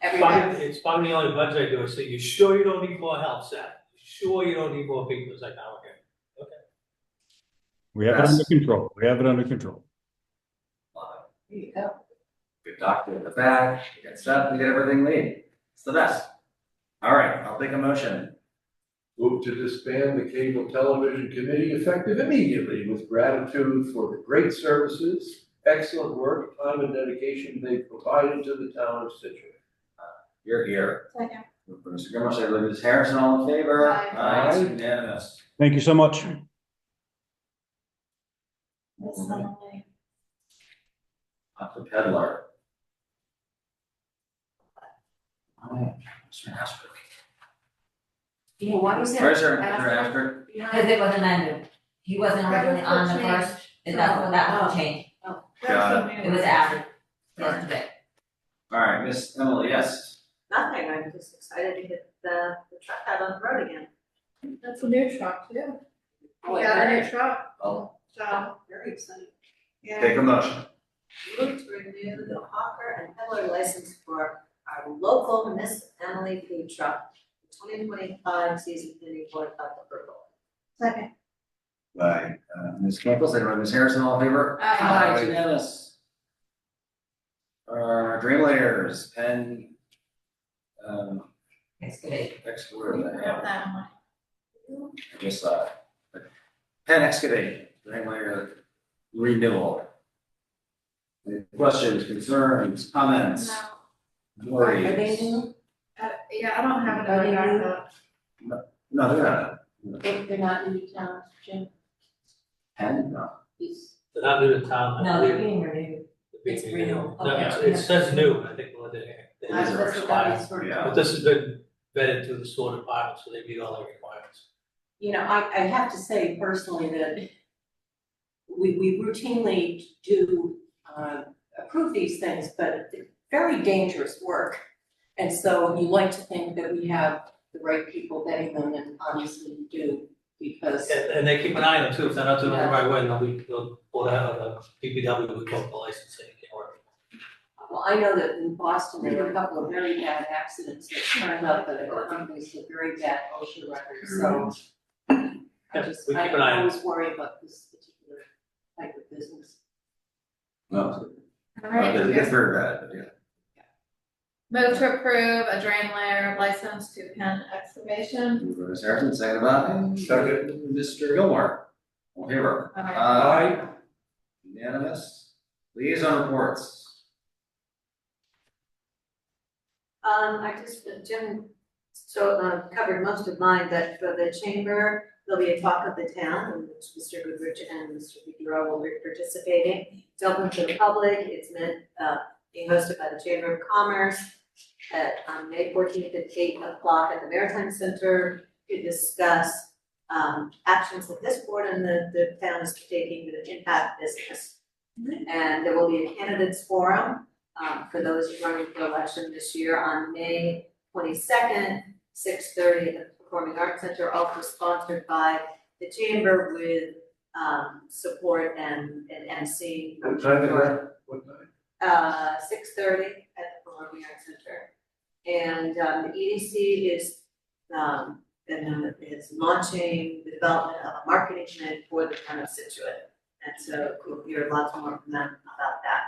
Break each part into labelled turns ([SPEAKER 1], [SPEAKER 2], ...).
[SPEAKER 1] Very
[SPEAKER 2] fun,
[SPEAKER 1] nice.
[SPEAKER 2] it's fun, the only budget I do is say, you sure you don't need more help, Seth? You Sure you don't need more people, it's like, oh, okay.
[SPEAKER 3] We have it under
[SPEAKER 4] Yes.
[SPEAKER 3] control. We have it under control.
[SPEAKER 1] There you go.
[SPEAKER 4] Good doctor in the back, we got stuff, we got everything we need. It's the best. All right, I'll take a motion.
[SPEAKER 5] Move to disband the Cable Television Committee effective immediately with gratitude for the great services, excellent work, time and dedication they provided to the town of Situate.
[SPEAKER 4] You're here.
[SPEAKER 1] Second.
[SPEAKER 4] Moved by Mr. Grimmer, seconded by Ms. Harrison, all in favor?
[SPEAKER 1] Aye.
[SPEAKER 4] Aye, it's unanimous.
[SPEAKER 3] Thank you so much.
[SPEAKER 1] That's lovely.
[SPEAKER 4] Up the peddler. All right, Mr. Asper.
[SPEAKER 6] Yeah, why was it?
[SPEAKER 4] Where's her,
[SPEAKER 6] Asper?
[SPEAKER 4] Mr. Asper?
[SPEAKER 6] Behind-
[SPEAKER 7] Because it wasn't under, he wasn't
[SPEAKER 1] That
[SPEAKER 7] originally
[SPEAKER 1] was
[SPEAKER 7] on the
[SPEAKER 1] what changed.
[SPEAKER 7] first, and that's what that was changed,
[SPEAKER 4] Got
[SPEAKER 7] Oh, it was added yesterday.
[SPEAKER 4] All right, Miss Emily, yes.
[SPEAKER 6] Nothing, I'm just excited to get the, the truck out on the road again.
[SPEAKER 1] That's a new truck too.
[SPEAKER 6] Oh,
[SPEAKER 1] We got a new
[SPEAKER 6] very-
[SPEAKER 1] truck,
[SPEAKER 4] I'll
[SPEAKER 1] so,
[SPEAKER 6] Very excited.
[SPEAKER 1] yeah.
[SPEAKER 4] take a motion.
[SPEAKER 6] Move to renew the hawker and peddler license for our local Miss Emily food truck, twenty twenty-five season ending fourth of the purple.
[SPEAKER 1] Second.
[SPEAKER 4] By uh, Ms. Campbell, seconded by Ms. Harrison, all in favor?
[SPEAKER 1] Aye.
[SPEAKER 4] It's unanimous. Uh, Dream Layers, Penn, um,
[SPEAKER 7] Excavate.
[SPEAKER 4] excavator,
[SPEAKER 1] We have
[SPEAKER 4] I
[SPEAKER 1] that one.
[SPEAKER 4] just saw it. But Penn Excavate, Dream Layer renewal. Any Questions, concerns, comments,
[SPEAKER 1] No,
[SPEAKER 4] worries?
[SPEAKER 7] Are they new?
[SPEAKER 1] I, yeah, I don't have
[SPEAKER 6] Are
[SPEAKER 1] another
[SPEAKER 6] they new?
[SPEAKER 1] backup.
[SPEAKER 4] No, they're not,
[SPEAKER 6] If they're not in town, Jim,
[SPEAKER 4] Penn, no.
[SPEAKER 6] please.
[SPEAKER 2] So that new town. I
[SPEAKER 7] No,
[SPEAKER 2] believe,
[SPEAKER 7] they're being renewed.
[SPEAKER 2] the big
[SPEAKER 7] it's
[SPEAKER 2] thing,
[SPEAKER 7] real.
[SPEAKER 2] No, it's-
[SPEAKER 7] Okay.
[SPEAKER 2] it says new, I think, well, they, they
[SPEAKER 4] These
[SPEAKER 6] That's
[SPEAKER 4] are
[SPEAKER 6] what that
[SPEAKER 2] expired.
[SPEAKER 6] is for.
[SPEAKER 4] Yeah.
[SPEAKER 2] But this has been vetted through the sewer department, so they meet all the requirements.
[SPEAKER 6] you know, I, I have to say personally that we, we routinely do, uh, approve these things, but they're very dangerous work. And so you like to think that we have the right people vetting them, and obviously we do, because,
[SPEAKER 2] And, and they keep an eye on it too, if they're not doing it the right way, they'll be, they'll pull out of the DPW, will pull the license, and it can't work.
[SPEAKER 6] well, I know that in Boston, there were a couple of very bad accidents that turned up, that there were companies with very bad OSHA records, so. I
[SPEAKER 2] Mm-hmm. Yeah,
[SPEAKER 6] just,
[SPEAKER 2] we keep
[SPEAKER 6] I
[SPEAKER 2] an eye on it.
[SPEAKER 6] always worry about this particular type of business.
[SPEAKER 4] No,
[SPEAKER 1] All right,
[SPEAKER 4] they're, they're very bad, but yeah.
[SPEAKER 1] Move to approve a drain layer license to Penn Excavation.
[SPEAKER 4] Moved by Ms. Harrison, seconded by.
[SPEAKER 5] Second.
[SPEAKER 4] Mr. Gilmore. All in favor?
[SPEAKER 1] All right.
[SPEAKER 4] Aye. Unanimous. Liaison reports.
[SPEAKER 6] Um, I just, Jim, so, uh, covered most of mine, but for the chamber, there'll be a talk of the town, in which Mr. Goodrich and Mr. Figueroa will be participating. It's open to the public, it's meant, uh, being hosted by the Chamber of Commerce at, um, May fourteenth at eight o'clock at the Maritime Center to discuss, um, actions that this board and the, the town is taking to impact business. And there will be a candidates forum, um, for those running for election this year on May twenty-second, six thirty at the Performing Arts Center, also sponsored by the Chamber with, um, support and, and MC.
[SPEAKER 5] What time is that? What time?
[SPEAKER 6] Uh, six thirty at the Performing Arts Center. And, um, the EDC is, um, and is launching the development of a marketing plan for the town of Situate. And so we'll hear lots more from them about that,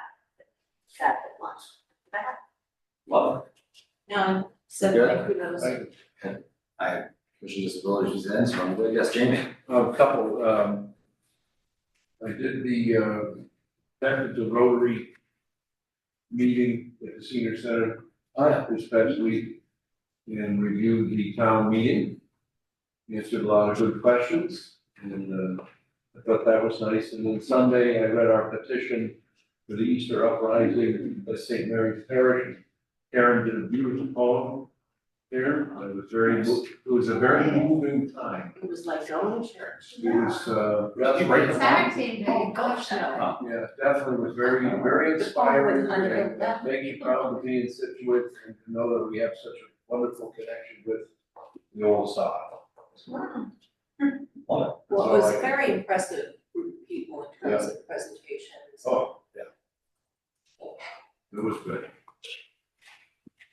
[SPEAKER 6] that launch.
[SPEAKER 4] Love
[SPEAKER 6] No, so
[SPEAKER 4] Good.
[SPEAKER 6] thank you, those.
[SPEAKER 5] Thank you.
[SPEAKER 4] Commission Disabilities is in, so I'm going yes, Jamie.
[SPEAKER 5] A couple, um, I did the, um, that was the Rotary meeting at the senior center uh, this past week and reviewed the town meeting. Answered a lot of good questions and, uh, I thought that was nice. And then Sunday, I read our petition for the Easter uprising by St. Mary's Parish. Karen did a beautiful poem there. It was very, mo- it was a very moving time.
[SPEAKER 6] It was like going to church.
[SPEAKER 5] It was, uh,
[SPEAKER 4] Did you break the law?
[SPEAKER 1] Saturday,
[SPEAKER 6] Oh, gosh, no.
[SPEAKER 5] yeah, definitely was very, very
[SPEAKER 6] The poem
[SPEAKER 5] inspiring
[SPEAKER 6] was
[SPEAKER 5] and
[SPEAKER 6] unreal.
[SPEAKER 5] make you proud to be in Situate and to know that we have such a wonderful connection with the old style.
[SPEAKER 4] Love
[SPEAKER 6] Well, it
[SPEAKER 5] So
[SPEAKER 6] was
[SPEAKER 5] I-
[SPEAKER 6] a very impressive group of people in terms of presentations.
[SPEAKER 5] Oh, yeah. It was good.